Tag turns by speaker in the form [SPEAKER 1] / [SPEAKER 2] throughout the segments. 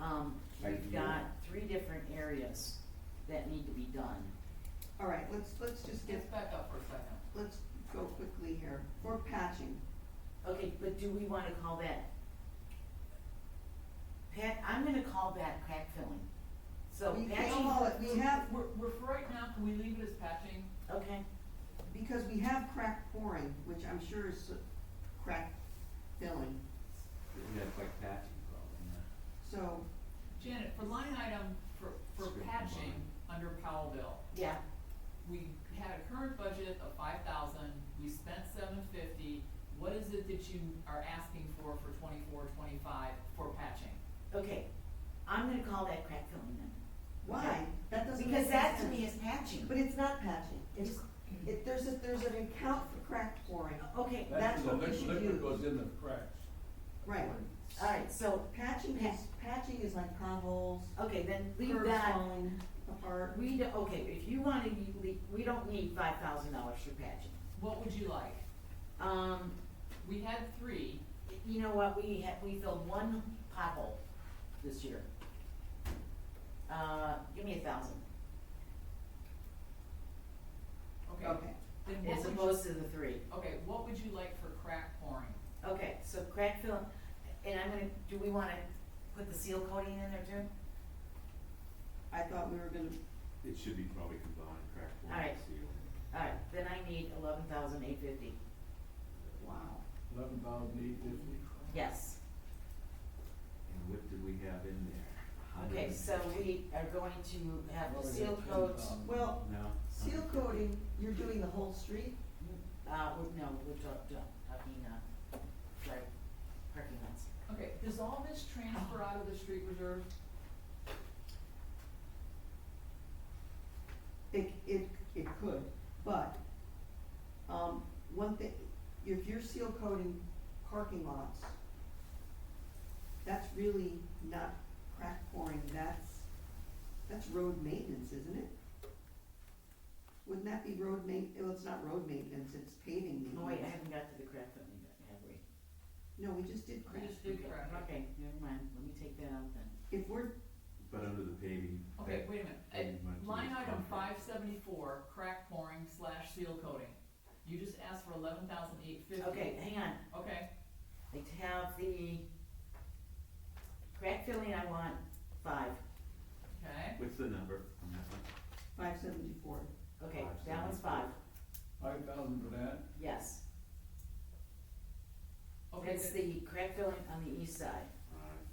[SPEAKER 1] Um,
[SPEAKER 2] Like
[SPEAKER 1] we've
[SPEAKER 2] you-
[SPEAKER 1] got three different areas that need to be done.
[SPEAKER 3] All right, let's, let's just get,
[SPEAKER 4] Just back up for a second.
[SPEAKER 3] let's go quickly here. For patching,
[SPEAKER 1] Okay, but do we wanna call that? Pat, I'm gonna call that crack filling. So
[SPEAKER 3] We can
[SPEAKER 1] patching,
[SPEAKER 3] call it- we have-
[SPEAKER 4] We're, we're, for right now, can we leave it as patching?
[SPEAKER 1] okay,
[SPEAKER 3] because we have crack pouring, which I'm sure is crack filling,
[SPEAKER 2] Yeah, it's like patching problem, yeah.
[SPEAKER 3] so,
[SPEAKER 4] Janet, for line item, for, for
[SPEAKER 2] Straight
[SPEAKER 4] patching, under Powell bill,
[SPEAKER 1] yeah,
[SPEAKER 4] we had a current budget of five thousand, we spent seven fifty. What is it that you are asking for for twenty-four, twenty-five for patching?
[SPEAKER 1] okay. I'm gonna call that crack filling then.
[SPEAKER 3] why? That doesn't make
[SPEAKER 1] Because that to
[SPEAKER 3] sense.
[SPEAKER 1] me is patching.
[SPEAKER 3] But it's not patching, it's, it, there's a, there's an account for crack pouring,
[SPEAKER 1] Okay,
[SPEAKER 3] That's what we
[SPEAKER 5] liquid-
[SPEAKER 3] should
[SPEAKER 5] Liquid
[SPEAKER 3] use.
[SPEAKER 5] goes in the cracks.
[SPEAKER 3] right.
[SPEAKER 1] alright, so,
[SPEAKER 3] Patching is, patching is like potholes,
[SPEAKER 1] okay, then leave
[SPEAKER 3] curbs
[SPEAKER 1] that.
[SPEAKER 3] falling apart.
[SPEAKER 1] We, do- okay, if you wanna, you le- we don't need five thousand dollars for patching.
[SPEAKER 4] What would you like?
[SPEAKER 1] Um,
[SPEAKER 4] We had three,
[SPEAKER 1] you know what, we had, we filled one pothole this year. Uh, give me a thousand,
[SPEAKER 4] okay,
[SPEAKER 3] Okay,
[SPEAKER 4] then
[SPEAKER 1] as
[SPEAKER 4] what would you,
[SPEAKER 1] opposed to the three.
[SPEAKER 4] okay, what would you like for crack pouring?
[SPEAKER 1] Okay, so crack fill, and I'm gonna, do we wanna put the seal coating in there too?
[SPEAKER 3] I thought we were gonna,
[SPEAKER 2] It should be probably combined, crack form
[SPEAKER 1] Alright.
[SPEAKER 2] and seal.
[SPEAKER 1] Alright, then I need eleven thousand eight fifty,
[SPEAKER 3] wow.
[SPEAKER 5] Eleven thousand eight fifty.
[SPEAKER 1] yes.
[SPEAKER 2] And what did we have in there? A hundred
[SPEAKER 1] Okay,
[SPEAKER 2] and-
[SPEAKER 1] so we are going to have the
[SPEAKER 5] Well, we
[SPEAKER 1] seal
[SPEAKER 5] got
[SPEAKER 1] coat,
[SPEAKER 5] 10,000.
[SPEAKER 3] Well,
[SPEAKER 2] No.
[SPEAKER 3] seal coating, you're doing the whole street?
[SPEAKER 1] uh, we- no, we're talk- talking, uh, sorry, parking lots.
[SPEAKER 4] Okay, does all this transfer out of the street reserve?
[SPEAKER 3] It, it, it could, but, um, one thing, if you're seal coating parking lots, that's really not crack pouring, that's, that's road maintenance, isn't it? Wouldn't that be road ma- well, it's not road maintenance, it's paving
[SPEAKER 1] Oh wait, I
[SPEAKER 3] maintenance.
[SPEAKER 1] haven't got to the crack filling yet, have we?
[SPEAKER 3] No, we just did
[SPEAKER 4] We
[SPEAKER 3] crack.
[SPEAKER 4] just did crack.
[SPEAKER 1] Okay, never mind, let me take that out then.
[SPEAKER 3] If we're,
[SPEAKER 2] But under the paving.
[SPEAKER 4] Okay,
[SPEAKER 2] that-
[SPEAKER 4] wait a minute,
[SPEAKER 2] that
[SPEAKER 4] Uh,
[SPEAKER 2] we went to
[SPEAKER 4] line
[SPEAKER 2] this
[SPEAKER 4] item five
[SPEAKER 2] contract.
[SPEAKER 4] seventy-four, crack pouring slash seal coating. You just asked for eleven thousand eight fifty.
[SPEAKER 1] Okay, hang on,
[SPEAKER 4] Okay,
[SPEAKER 1] I have the crack filling I want five,
[SPEAKER 4] okay,
[SPEAKER 2] What's the number on that one?
[SPEAKER 3] five seventy-four,
[SPEAKER 1] okay,
[SPEAKER 2] Five,
[SPEAKER 1] that one's
[SPEAKER 2] seven,
[SPEAKER 1] five,
[SPEAKER 5] Five thousand for that,
[SPEAKER 1] yes.
[SPEAKER 4] okay,
[SPEAKER 1] It's
[SPEAKER 4] then,
[SPEAKER 1] the crack filling on the east side,
[SPEAKER 2] Alright,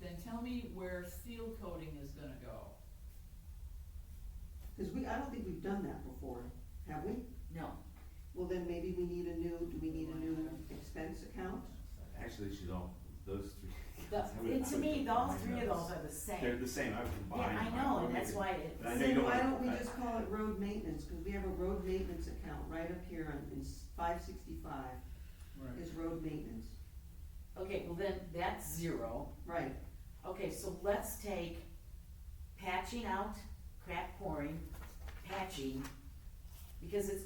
[SPEAKER 4] then tell me where seal coating is gonna go.
[SPEAKER 3] cause we, I don't think we've done that before, have we?
[SPEAKER 1] no,
[SPEAKER 3] Well, then maybe we need a new, do we need a new expense account?
[SPEAKER 2] actually, she's all, those three.
[SPEAKER 1] the,
[SPEAKER 2] I would-
[SPEAKER 1] it- to
[SPEAKER 2] I would
[SPEAKER 1] me, all
[SPEAKER 2] combine
[SPEAKER 1] three of those are the
[SPEAKER 2] They're
[SPEAKER 1] same.
[SPEAKER 2] the same, I would
[SPEAKER 1] Yeah,
[SPEAKER 2] combine.
[SPEAKER 1] I
[SPEAKER 2] them.
[SPEAKER 1] know,
[SPEAKER 2] would
[SPEAKER 1] and that's
[SPEAKER 2] make
[SPEAKER 1] why
[SPEAKER 2] it-
[SPEAKER 1] it,
[SPEAKER 2] I know you
[SPEAKER 3] Then
[SPEAKER 2] don't
[SPEAKER 3] why
[SPEAKER 2] want-
[SPEAKER 3] don't we
[SPEAKER 2] I-
[SPEAKER 3] just call it road maintenance, cause we have a road maintenance account right up here on, in five sixty-five,
[SPEAKER 5] right.
[SPEAKER 3] is road maintenance,
[SPEAKER 1] okay, well then, that's zero.
[SPEAKER 3] right,
[SPEAKER 1] Okay, so let's take patching out, crack pouring, patching, because it's,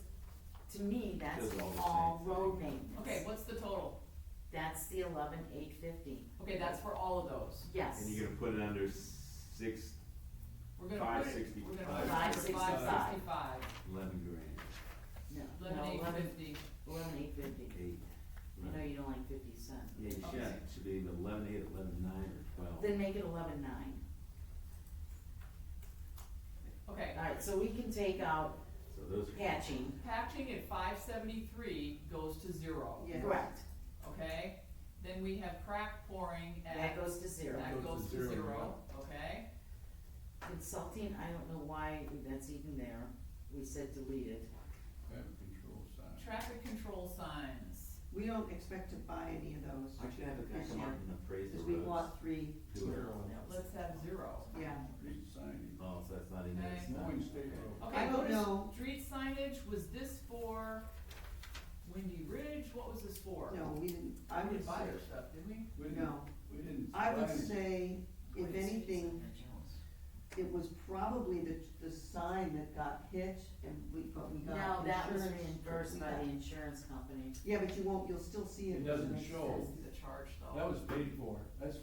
[SPEAKER 1] to me, that's
[SPEAKER 2] Those are all the
[SPEAKER 1] all
[SPEAKER 2] same thing.
[SPEAKER 1] road maintenance.
[SPEAKER 4] Okay, what's the total?
[SPEAKER 1] That's the eleven eight fifty,
[SPEAKER 4] Okay, that's for all of those.
[SPEAKER 1] yes.
[SPEAKER 2] And you're gonna put it under six,
[SPEAKER 4] We're gonna put it,
[SPEAKER 2] 565.
[SPEAKER 4] we're gonna put it
[SPEAKER 1] Five
[SPEAKER 4] for
[SPEAKER 1] sixty-five.
[SPEAKER 4] five sixty-five,
[SPEAKER 2] eleven grand,
[SPEAKER 1] No,
[SPEAKER 4] eleven
[SPEAKER 1] no,
[SPEAKER 4] eight
[SPEAKER 1] eleven,
[SPEAKER 4] fifty.
[SPEAKER 1] eleven eight fifty.
[SPEAKER 2] eight.
[SPEAKER 1] I know you don't like fifty cents.
[SPEAKER 2] Yeah, you should,
[SPEAKER 4] Okay.
[SPEAKER 2] it should be eleven eight, eleven nine, or twelve.
[SPEAKER 1] Then make it eleven nine.
[SPEAKER 4] Okay,
[SPEAKER 1] Alright, so we can take out
[SPEAKER 2] So those are.
[SPEAKER 1] patching,
[SPEAKER 4] patching at five seventy-three goes to zero,
[SPEAKER 3] yeah.
[SPEAKER 1] correct,
[SPEAKER 4] okay? Then we have crack pouring at.
[SPEAKER 1] that goes to zero.
[SPEAKER 4] That goes to zero, okay?
[SPEAKER 1] Consulting, I don't know why that's even there, we said delete it.
[SPEAKER 5] Traffic control sign.
[SPEAKER 4] Traffic control signs,
[SPEAKER 3] We don't expect to buy any of those,
[SPEAKER 2] I should have a guy
[SPEAKER 3] Yes,
[SPEAKER 2] come
[SPEAKER 3] yeah.
[SPEAKER 2] out and appraise the
[SPEAKER 3] cause
[SPEAKER 2] roads.
[SPEAKER 3] we want three,
[SPEAKER 2] Do it.
[SPEAKER 4] let's have zero.
[SPEAKER 3] yeah.
[SPEAKER 5] Street signing.
[SPEAKER 2] Oh, so that's not even.
[SPEAKER 4] Okay.
[SPEAKER 2] it's not-
[SPEAKER 5] Mowing state
[SPEAKER 2] okay.
[SPEAKER 5] road.
[SPEAKER 3] I
[SPEAKER 4] Okay,
[SPEAKER 3] don't
[SPEAKER 4] go
[SPEAKER 3] know.
[SPEAKER 4] to street signage, was this for Windy Ridge, what was this for?
[SPEAKER 3] No, we didn't, I
[SPEAKER 4] We
[SPEAKER 3] would
[SPEAKER 4] didn't buy
[SPEAKER 3] say,
[SPEAKER 4] their stuff, did we?
[SPEAKER 5] We didn't,
[SPEAKER 3] no,
[SPEAKER 5] we didn't.
[SPEAKER 3] I would
[SPEAKER 5] sign it.
[SPEAKER 3] say, if
[SPEAKER 1] Wait, it's-
[SPEAKER 3] anything, it was probably the, the sign that got hit and we, but we got
[SPEAKER 1] No,
[SPEAKER 3] insurance.
[SPEAKER 1] that was reimbursed
[SPEAKER 3] we
[SPEAKER 1] by
[SPEAKER 3] got-
[SPEAKER 1] the insurance company.
[SPEAKER 3] Yeah, but you won't, you'll still see it.
[SPEAKER 5] It doesn't
[SPEAKER 3] Makes
[SPEAKER 5] show.
[SPEAKER 3] sense.
[SPEAKER 4] This is a charge though.
[SPEAKER 5] That was paid for, that's